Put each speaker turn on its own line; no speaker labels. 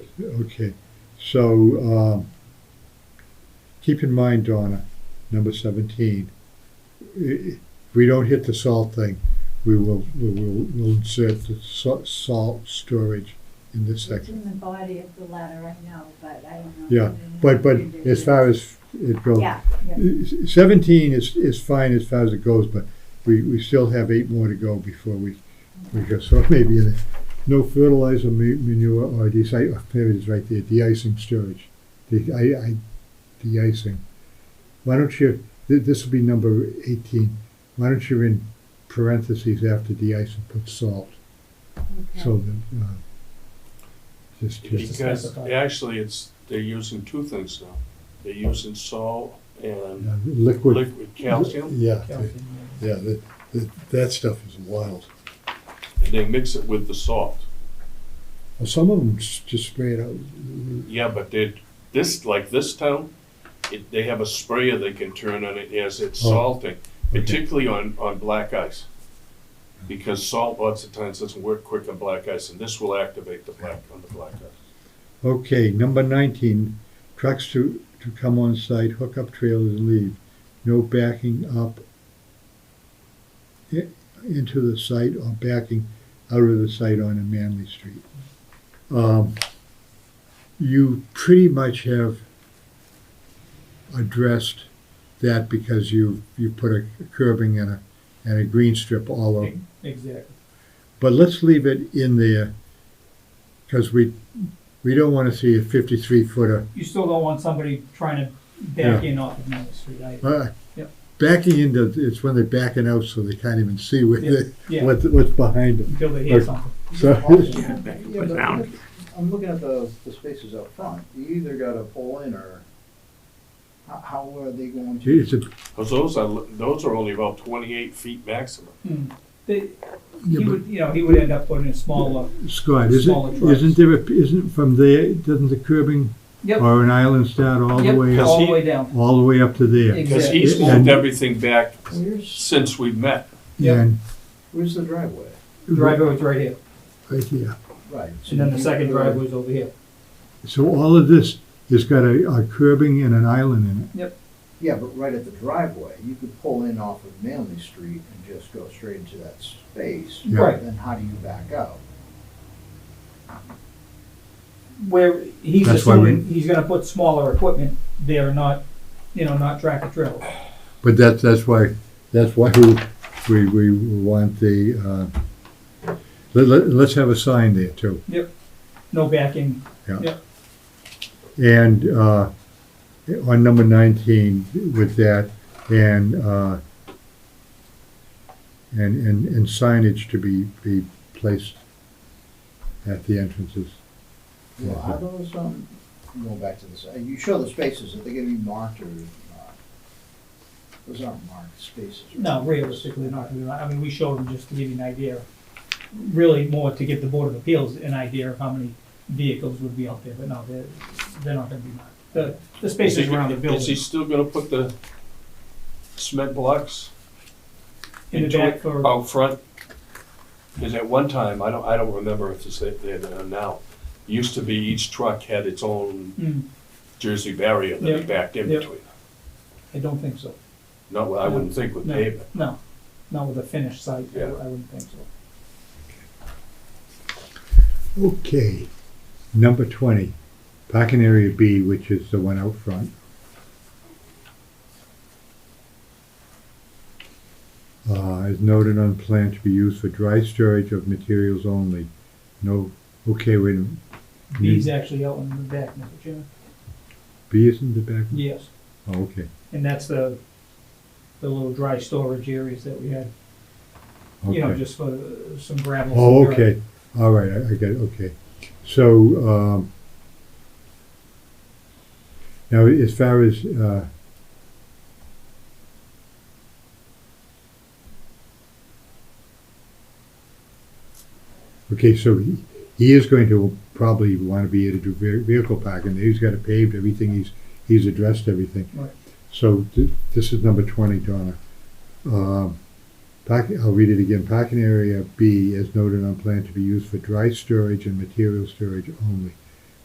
Okay, so, um, keep in mind, Donna, number seventeen, i- if we don't hit the salt thing, we will, we will, we'll insert the sa- salt storage in this
It's
section.
in the body of the letter, I know, but I don't know.
Yeah, But, but as far as it goes,
Yeah, yeah.
seventeen is, is fine as far as it goes, but we, we still have eight more to go before we, we go, so maybe it- no fertilizer, ma- manure, or deci, oh, there it is right there, de-icing storage. The, I, I, de-icing. Why don't you, th- this will be number eighteen, why don't you in parentheses after de-icing put salt?
okay.
So that, uh, just, just,
Because
specify.
actually, it's, they're using two things now. They're using salt and
uh, liquid.
liquid calcium,
Yeah,
Yeah,
the- yeah, that, that, that stuff is wild.
and they mix it with the salt.
Well, some of them s- just spray it out.
Yeah, but they, this, like this town, it, they have a sprayer they can turn on it as it's
Oh,
salting,
okay. Mm-hmm.
particularly on, on black ice. Because salt lots of times doesn't work quick on black ice, and this will activate the black, on the black ice.
Okay, number nineteen, trucks to, to come on site, hook up trailers and leave. No backing up i- into the site or backing out of the site on a Manley Street. Um, you pretty much have addressed that because you, you put a curbing and a, and a green strip all over.
Exactly.
But let's leave it in there, because we, we don't want to see a fifty-three footer.
You still don't want somebody trying to back in off of Main Street, I,
Uh,
Yep.
Backing into, it's when they're backing out, so they can't even see what,
Yeah,
they-
yeah.
what, what's behind them.
until they hear
But-
something.
So,
Yeah, but look- I'm looking at the, the spaces up front, you either gotta pull in or, how, how are they going to?
it's a,
Cause those are, li- those are only about twenty-eight feet maximum.
Mm. They, he
yeah,
would, you know, he would end up putting a smaller,
but Scott, isn't,
Smaller trucks.
isn't there, a- isn't from there, doesn't the curbing
yep,
or an island start all the
yep,
way
all
up?
the way down.
All the way up to there?
Exactly.
Cause he's
Yeah.
moved everything back
Where's,
since we met.
Yep.
And
where's the driveway?
Driveway was right here,
Right here.
Right. so
and then the
you-
second driveway was over here.
So all of this has got a, a curbing and an island in it.
Yeah, but right at the driveway, you could pull in off of Manley Street and just go straight into that space.
Yeah.
Right.
Then how do you back out?
Where he's
That's why we-
assuming he's gonna put smaller equipment there, not, you know, not tractor trailers.
But that's, that's why, that's why we, we, we want the, uh, let, let, let's have a sign there too.
No backing,
And, uh, on number nineteen with that, and, uh, and, and, and signage to be, be placed at the entrances.
Well, are those, um, going back to this, uh, you show the spaces, are they gonna be marked or not? Those aren't marked spaces. right?
no, realistically not, gonna be right. I mean, we showed him just to give you an idea. Really more to give the Board of Appeals an idea of how many vehicles would be out there, but no, they're, they're not gonna be marked. The, the
Is
spaces
he-
around the
Is he
building
still gonna put the cement blocks
in the
into
back
it
for.
out front? Because at one time, I don't, I don't remember if it's there now, used to be each truck had its own
Mm,
Jersey barrier that
Yeah,
they backed in
yeah.
between.
I don't think so.
Not, well, I wouldn't think with
No,
pavement.
No, not with a finished site, I I
Yeah.
wouldn't think
Mm-hmm.
so.
Okay, number twenty, parking area B, which is the one out front. Uh, is noted on plan to be used for dry storage of materials only. No, okay, wait a minute.
He's actually out in the back, Mr. Chairman.
B is in the back?
Yes,
Oh, okay,
and that's the, the little dry storage areas that we had, you know,
okay.
just for uh, some gravel.
Oh,
some dirt.
okay, all right, I, I get it, okay. So, um, now, as far as, uh, Okay, so he, he is going to probably want to be able to do ve- vehicle parking. He's got it paved, everything, he's, he's addressed everything.
Right.
So th- this is number twenty, Donna. Um, parking, I'll read it again. Parking area B is noted on plan to be used for dry storage and material storage only.